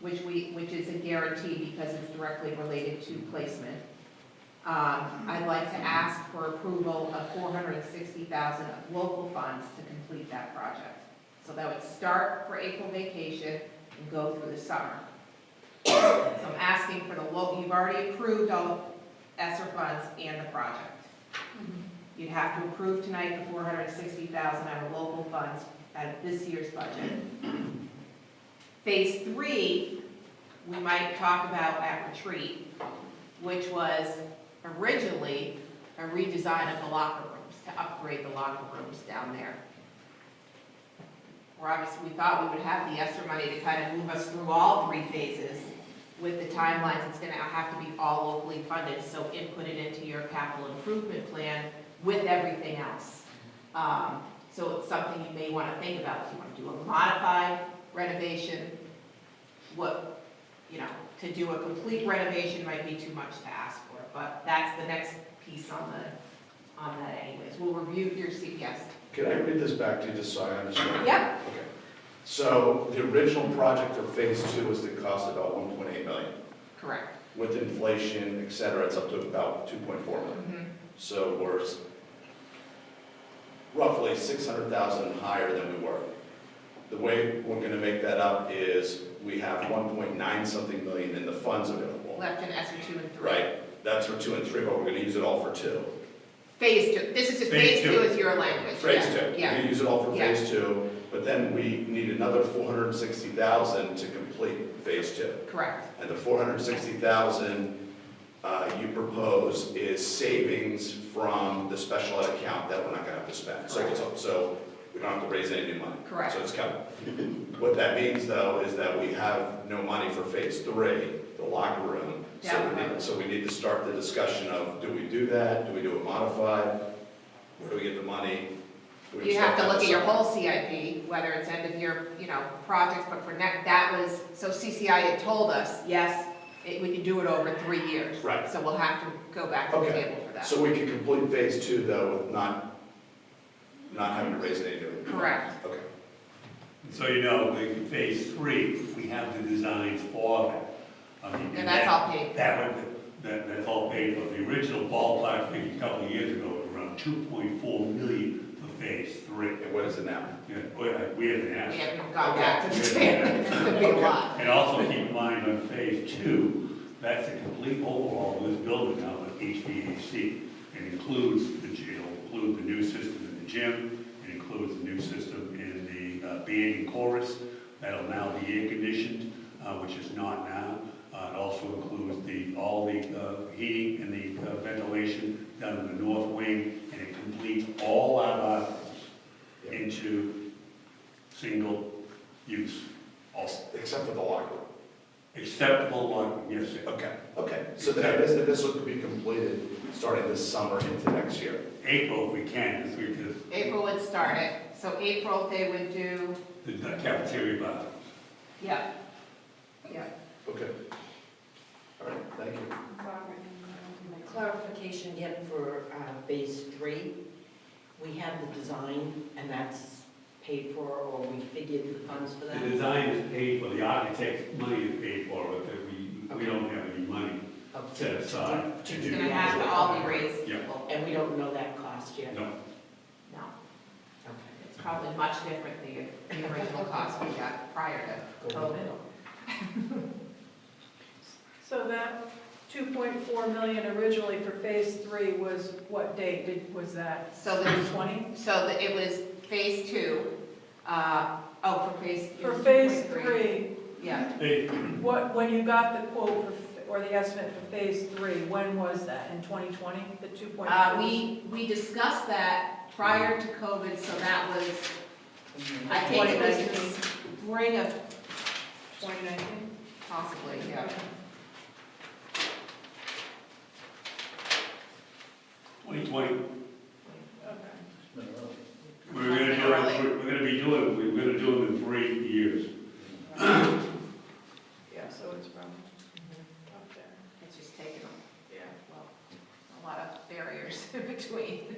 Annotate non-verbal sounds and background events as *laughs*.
which we, which is a guarantee because it's directly related to placement. Um, I'd like to ask for approval of four hundred and sixty thousand of local funds to complete that project. So that would start for April vacation and go through the summer. So I'm asking for the local, you've already approved all ESSER funds and the project. You'd have to approve tonight the four hundred and sixty thousand out of local funds out of this year's budget. Phase three, we might talk about at retreat, which was originally a redesign of the locker rooms, to upgrade the locker rooms down there. We're obviously, we thought we would have the extra money to kind of move us through all three phases with the timelines, it's gonna have to be all locally funded, so input it into your capital improvement plan with everything else. Um, so it's something you may wanna think about, if you wanna do a modified renovation, what, you know, to do a complete renovation might be too much to ask for, but that's the next piece on the, on that anyways. We'll review your CPS. Can I read this back to you just so I understand? Yep, Okay. So the original project for phase two was the cost of about one point eight million. correct. With inflation, et cetera, it's up to about two point four million. Mhm. So we're s- roughly six hundred thousand higher than we were. The way we're gonna make that up is we have one point nine something million in the funds available. Left in S two and three. Right? That's for two and three, but we're gonna use it all for two. Phase two, this is just, Phase phase two two. is your language, yeah, Phase two, we yeah. can use it all for Yeah. phase two, but then we need another four hundred and sixty thousand to complete phase two. correct, And the four hundred and sixty thousand, uh, you propose is savings from the special ed account that we're not gonna have to spend. So, it's- so we don't have to raise any new money. Correct. So it's coming. What that means though is that we have no money for phase three, the locker room. So Yeah. we need, so we need to start the discussion of, do we do that? Do we do it modified? Where do we get the money? Do we You have start to that look at your somewhere? whole CIP, whether it's end of year, you know, projects, but for next, that was, so CCI had told us, yes, it, we can do it over three years. Right. So we'll have to go back to the Okay. table for that. So we can complete phase two though with not, not having to raise any new. money. Correct, Okay. So you know, the phase three, we have the designs for that. I mean, and that's that- all paid, That would, that, that's all paid for. The original ballpark figure a couple of years ago was around two point four million for phase three. And what is it now? Yeah, we haven't we haven't we asked. haven't gone back to the table, it's gonna be a lot. And also keep in mind on phase two, that's a complete overhaul of this building now with HVAC. It includes the, gy- it'll include the new system in the gym, it includes the new system in the uh, band and chorus. That'll now be air conditioned, uh, which is not now. Uh, It also includes the, all the uh, heating and the uh, ventilation down in the north wing, and it completes all our bathrooms into single use. Also, except for the locker room. Acceptable one, yes, sir. Okay, okay. So then this, this will be completed starting this summer into next year. April if we can, if we could, April would start it, so April they would do, the cafeteria bar. yeah, yeah. Okay. All right, thank you. Clarification again for uh, phase three. We have the design and that's paid for or we figured the funds for that? The design is paid for, the architect's money is paid for, but we, we don't have any money. Okay. set aside to To do do It's gonna that. have to that. all be raised Yeah. equal. And we don't know that cost yet? No, No, Okay, it's probably much different than the original cost we got prior to COVID. So that 2.4 million originally for phase three was what date did- was that? So there's, 20? so the- it was phase two, uh, oh, for phase. it For was phase 2.3. three, Yeah, Hey, what, when you got the quote for f- or the estimate for phase three, when was that? In 2020, the 2.4? uh, we, we discussed that prior to COVID, so that was, I think it was the spring of, 2019? possibly, yeah. twenty twenty, Okay. we're gonna do, it- we're we're gonna be doing, we're gonna do it in three years. Yeah, so it's from up there. It's just taken Yeah. a, well, a lot of barriers *laughs* in between.